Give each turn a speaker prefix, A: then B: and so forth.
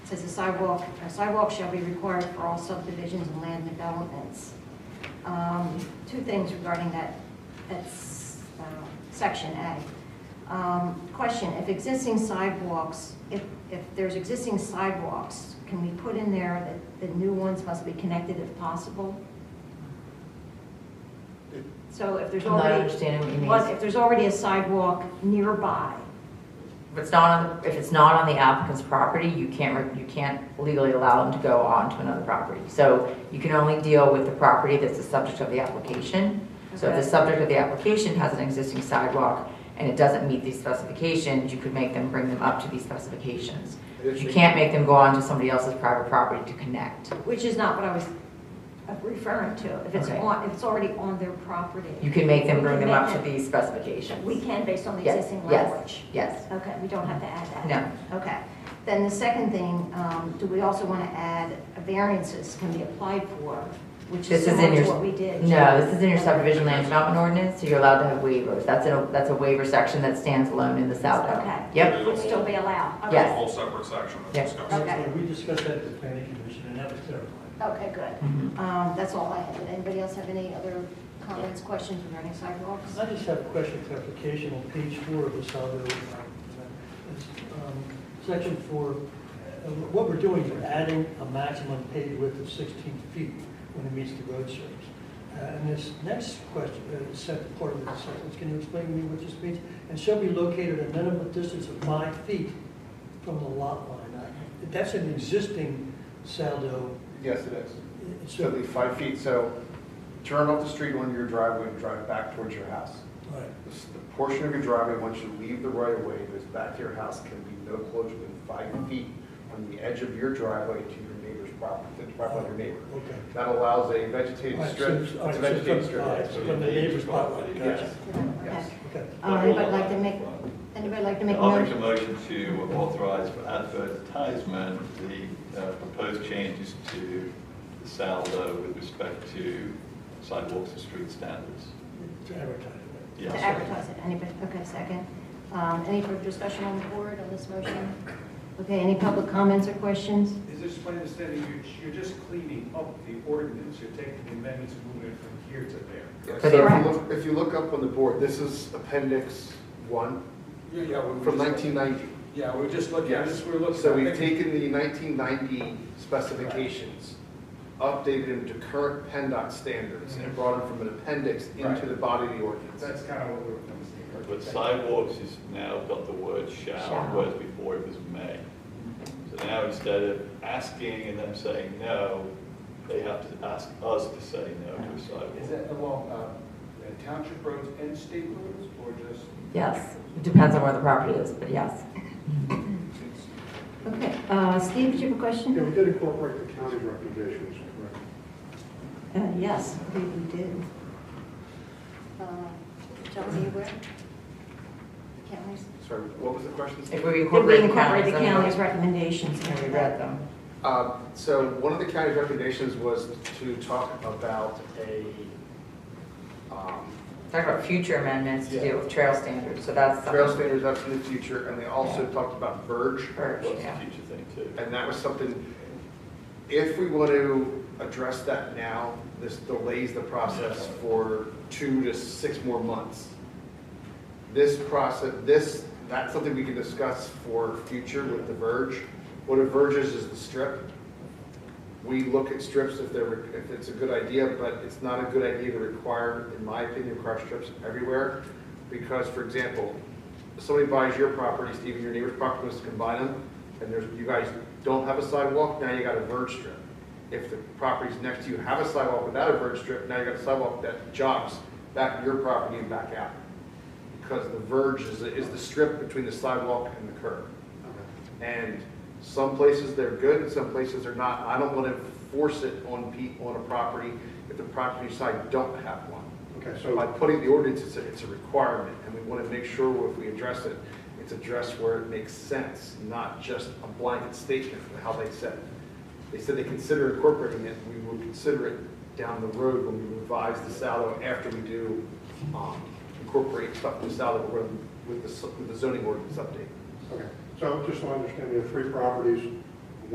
A: says a sidewalk, a sidewalk shall be required for all subdivisions and land developments. Um, Two things regarding that, that s- uh, section A. Um, Question, if existing sidewalks, if, if there's existing sidewalks, can we put in there that the new ones must be connected if possible? So if there's
B: I'm not
A: already,
B: understanding what you
A: what-
B: mean.
A: if there's already a sidewalk nearby,
B: If it's not, on- if it's not on the applicant's property, you can't, re- you can't legally allow them to go on to another property. So you can only deal with the property that's the subject of the application. So if
A: Okay.
B: the subject of the application has an existing sidewalk and it doesn't meet these specifications, you could make them bring them up to these specifications. You can't make them go on to somebody else's private property to connect.
A: which is not what I was uh, referring to. If it's
B: Okay.
A: on, if it's already on their property.
B: You can make them bring them up to
A: We
B: these specifications.
A: We can based on the
B: Yes,
A: existing
B: yes.
A: language.
B: Yes,
A: Okay, we don't have to add that.
B: no,
A: Okay. Then the second thing, um, do we also want to add variances can be applied for, which is
B: This is in
A: similar to
B: your-
A: what we did?
B: no, this is in your subdivision land development ordinance, so you're allowed to have waivers. That's a, that's a waiver section that stands alone in the Saldo.
A: Okay.
B: Yep,
A: Would still be allowed? Okay.
B: Yes.
C: A whole separate section of
B: Yes.
C: discussion.
A: Okay.
D: We discussed that at the planning commission, and that was clarified.
A: Okay, good.
B: Mhm.
A: Um, That's all I had. Did anybody else have any other comments, questions regarding sidewalks?
D: I just have a question, clarification on page four of the Saldo. um, it's, um, Section four, uh, what we're doing is we're adding a maximum paved width of 16 feet when it meets the road surface. Uh, And this next question, uh, set part of the sentence, can you explain to me what this means? And shall be located a minimum distance of five feet from the lot line. I- That's an existing Saldo. uh,
E: Yes, it is. It's
D: so-
E: at least five feet, so turn off the street onto your driveway and drive back towards your house.
D: all right.
E: The s- the portion of your driveway, once you leave the right of way, goes back to your house, can be no closer than five feet from the edge of your driveway to your neighbor's property, the property of your neighbor.
D: Okay.
E: That allows a vegetated
D: All right,
E: strip, it's
D: so- all right,
E: a
D: so
E: vegetated
D: from-
E: strip.
D: all right, so From the neighbor's property, gotcha.
E: Yes,
A: Okay.
E: yes.
D: Okay.
A: Uh, Anybody like to make, anybody like to make a
F: I'll make a
A: motion?
F: motion to authorize for advertisement the uh, proposed changes to the SALDO with respect to sidewalks and street standards.
D: To advertise it.
A: To
F: Yes.
A: advertise it, anybody, okay, second. Um, Any further discussion on the board on this motion? Okay, any public comments or questions?
G: Is this my understanding, you're, you're just cleaning up the ordinance, you're taking the amendments and moving it from here to there?
E: Yeah,
B: But
E: So if
B: they're-
E: you look, if you look up on the board, this is appendix one
G: Yeah, yeah. we were
E: from
G: just-
E: nineteen ninety.
G: Yeah, we're just looking, at this, we're looking.
E: So we've taken the 1990 specifications, updated them to current PennDOT standards, and brought them from an appendix into
G: Right.
E: the body of the ordinance.
G: That's kind of what we were thinking.
F: But sidewalks has now got the word shall,
B: Shall.
F: whereas before it was may. So now instead of asking and them saying no, they have to ask us to say no to a
G: Is
F: sidewalk.
G: that along, uh, uh, township roads and state roads, or just?
B: yes. It depends on where the property is, but yes.
A: Okay, uh, Steve, did you have a question?
H: Yeah, we did incorporate the county's recommendations, correct?
A: Uh, Yes, we Um, did. Tell me where? Counties?
E: Sorry, what was the question?
B: If we
A: Did we
B: incorporate the
A: incorporate
B: counties.
A: the county's recommendations?
B: And we read them.
E: Uh, So one of the county's recommendations was to talk about a, um,
B: Talk about future amendments to deal with trail standards, so that's
E: trail
B: something.
E: standards up in the future, and they also talked about verge.
B: Urge,
F: What's the
B: yeah.
F: future thing too?
E: And that was something, if we want to address that now, this delays the process for two to six more months. This process, this, that's something we can discuss for future with the verge. What a verge is, is the strip. We look at strips if they're, if it's a good idea, but it's not a good idea to require, in my opinion, require strips everywhere. Because, for example, somebody buys your property, Stephen, your neighbor's property wants to combine them, and there's, you guys don't have a sidewalk, now you got a verge strip. If the properties next to you have a sidewalk without a verge strip, now you got a sidewalk that jogs back to your property and back out. Because the verge is, is the strip between the sidewalk and the curb. And some places they're good, and some places they're not. I don't want to force it on people on a property if the property side don't have one.
H: Okay,
E: So by
H: so,
E: putting the ordinance, it's a, it's a requirement, and we want to make sure if we address it, it's addressed where it makes sense, not just a blanket statement of how they said it. They said they consider incorporating it, we will consider it down the road when we revise the Saldo after we do, um, incorporate stuff in the Saldo with, with the, with the zoning ordinance update.
H: okay, so just so I understand, we have three properties,